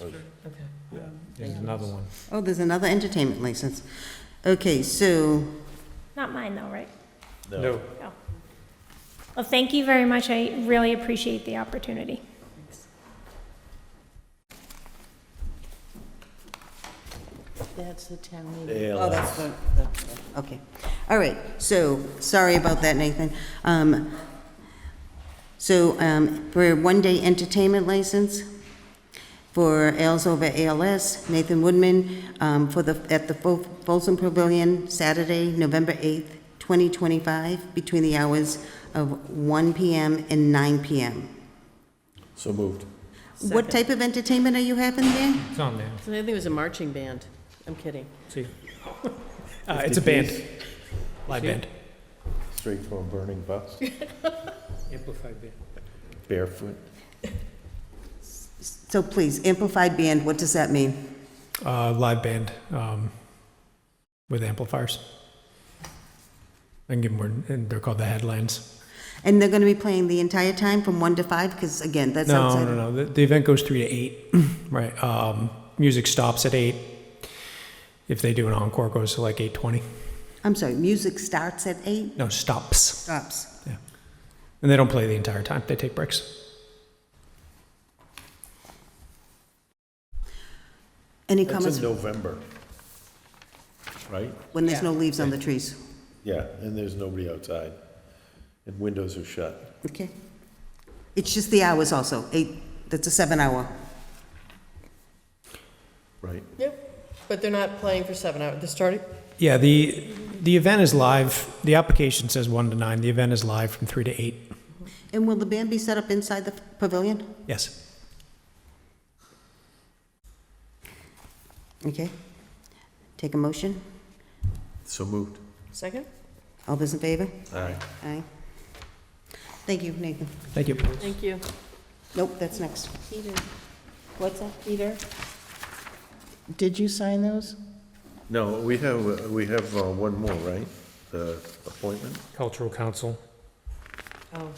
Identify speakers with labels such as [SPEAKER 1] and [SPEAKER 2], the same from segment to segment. [SPEAKER 1] Okay.
[SPEAKER 2] There's another one.
[SPEAKER 3] Oh, there's another entertainment license. Okay, so,
[SPEAKER 4] Not mine though, right?
[SPEAKER 2] No.
[SPEAKER 4] No. Well, thank you very much. I really appreciate the opportunity.
[SPEAKER 5] That's the town meeting.
[SPEAKER 3] oh, that's the, that's the- okay. All right, so, sorry about that, Nathan. Um, So, um, for a one-day entertainment license for Ales Over ALS, Nathan Woodman, um, for the, at the Fol- Folsom Pavilion, Saturday, November 8th, 2025, between the hours of 1 PM and 9 PM.
[SPEAKER 6] So moved.
[SPEAKER 3] What type of entertainment are you having there?
[SPEAKER 2] It's on there.
[SPEAKER 5] So I think it was a marching band. I'm kidding.
[SPEAKER 2] See? Uh, it's a band. Live
[SPEAKER 6] See?
[SPEAKER 2] band.
[SPEAKER 6] Straight from a burning bus,
[SPEAKER 2] Amplified band.
[SPEAKER 6] barefoot.
[SPEAKER 3] So please, amplified band, what does that mean?
[SPEAKER 2] Uh, live band, um, with amplifiers. I can give more, and they're called the headlines.
[SPEAKER 3] And they're going to be playing the entire time from 1 to 5? Because again, that's
[SPEAKER 2] No,
[SPEAKER 3] outside.
[SPEAKER 2] no,
[SPEAKER 3] of-
[SPEAKER 2] no, the, the event goes three to eight, right, um, music stops at eight. If they do an encore, it goes to like eight twenty,
[SPEAKER 3] I'm sorry, music starts at 8?
[SPEAKER 2] no, stops,
[SPEAKER 3] Stops.
[SPEAKER 2] yeah. And they don't play the entire time, they take breaks.
[SPEAKER 3] Any
[SPEAKER 6] That's
[SPEAKER 3] comments
[SPEAKER 6] in November, right?
[SPEAKER 3] when there's no leaves on the trees?
[SPEAKER 6] Yeah, and there's nobody outside, and windows are shut.
[SPEAKER 3] Okay. It's just the hours also, 8, that's a 7-hour.
[SPEAKER 6] Right.
[SPEAKER 7] Yep, but they're not playing for seven hours. They're starting,
[SPEAKER 2] Yeah, the, the event is live, the application says one to nine, the event is live from three to eight,
[SPEAKER 3] And will the band be set up inside the pavilion?
[SPEAKER 2] yes.
[SPEAKER 3] Okay. Take a motion.
[SPEAKER 6] So moved.
[SPEAKER 7] second?
[SPEAKER 3] All those in favor?
[SPEAKER 6] Aye.
[SPEAKER 3] Aye. Thank you, Nathan.
[SPEAKER 2] Thank you.
[SPEAKER 5] Thank you.
[SPEAKER 3] Nope, that's next.
[SPEAKER 5] Peter,
[SPEAKER 3] What's that?
[SPEAKER 5] Peter, did you sign those?
[SPEAKER 6] No, we have, uh, we have uh, one more, right? The appointment?
[SPEAKER 2] Cultural Council.
[SPEAKER 5] Oh.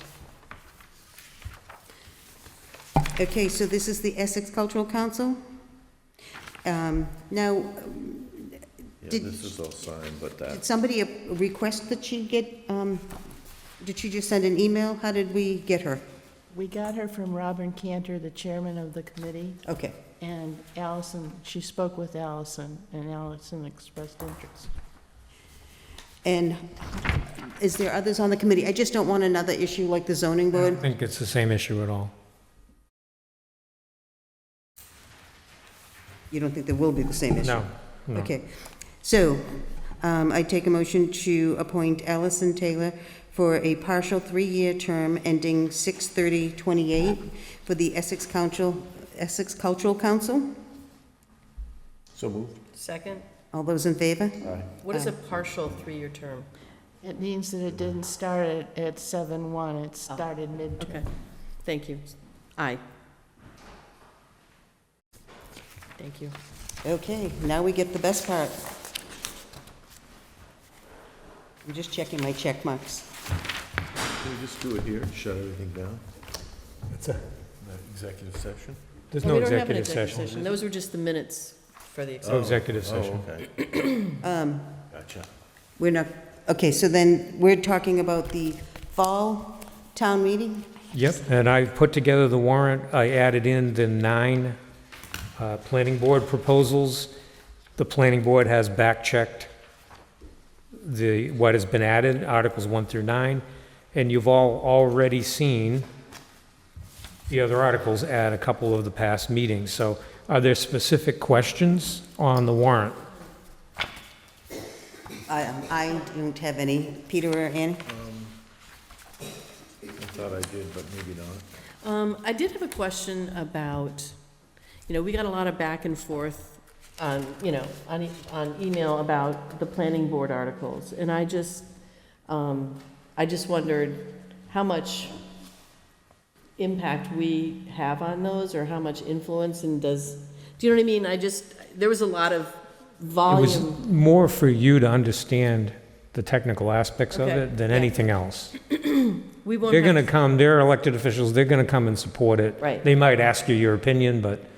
[SPEAKER 3] Okay, so this is the Essex Cultural Council. Um, Now,
[SPEAKER 6] Yeah,
[SPEAKER 3] Did-
[SPEAKER 6] this is all signed, but
[SPEAKER 3] did
[SPEAKER 6] that,
[SPEAKER 3] somebody uh, request that she get, um, did she just send an email? How did we get her?
[SPEAKER 5] We got her from Robin Cantor, the chairman of the committee,
[SPEAKER 3] Okay,
[SPEAKER 5] and Allison, she spoke with Allison, and Allison expressed interest.
[SPEAKER 3] and is there others on the committee? I just don't want another issue like the zoning
[SPEAKER 2] I
[SPEAKER 3] board.
[SPEAKER 2] don't think it's the same issue at all.
[SPEAKER 3] You don't think there will be the same issue?
[SPEAKER 2] No, no.
[SPEAKER 3] Okay, so um, I take a motion to appoint Allison Taylor for a partial three-year term ending 6/30/28 for the Essex Council, Essex Cultural Council.
[SPEAKER 6] so moved.
[SPEAKER 7] Second?
[SPEAKER 3] All those in favor?
[SPEAKER 6] Aye.
[SPEAKER 7] What is a partial three-year term?
[SPEAKER 5] It means that it didn't start at, at seven one, it started mid.
[SPEAKER 8] Okay, thank you. Aye. Thank you.
[SPEAKER 3] Okay, now we get the best part. I'm just checking my check marks.
[SPEAKER 6] Can we just do it here, shut everything down?
[SPEAKER 2] It's a-
[SPEAKER 6] That Executive session?
[SPEAKER 2] There's
[SPEAKER 8] Oh,
[SPEAKER 2] no
[SPEAKER 8] we don't have an
[SPEAKER 2] executive session.
[SPEAKER 8] Those were just the minutes.
[SPEAKER 7] For the,
[SPEAKER 2] No executive
[SPEAKER 6] Oh,
[SPEAKER 2] session.
[SPEAKER 6] okay. Gotcha.
[SPEAKER 3] We're not, okay, so then we're talking about the fall town meeting?
[SPEAKER 2] Yep, and I put together the warrant, I added in the nine uh, planning board proposals. The planning board has back-checked the, what has been added, Articles 1 through 9, and you've all already seen the other articles at a couple of the past meetings. So are there specific questions on the warrant?
[SPEAKER 3] I, I don't have any. Peter or Annie?
[SPEAKER 6] I thought I did, but maybe not.
[SPEAKER 8] Um, I did have a question about, you know, we got a lot of back and forth on, you know, on, e- on email about the planning board articles, and I just, um, I just wondered how much impact we have on those, or how much influence, and does, do you know what I mean? I just, there was a lot of
[SPEAKER 2] It was
[SPEAKER 8] volume.
[SPEAKER 2] more for you to understand the technical aspects of
[SPEAKER 8] Okay,
[SPEAKER 2] it than
[SPEAKER 8] yeah.
[SPEAKER 2] anything else.
[SPEAKER 8] We won't
[SPEAKER 2] They're
[SPEAKER 8] have-
[SPEAKER 2] going to come, they're elected officials, they're going to come and support it.
[SPEAKER 8] Right.
[SPEAKER 2] They might ask you your opinion, but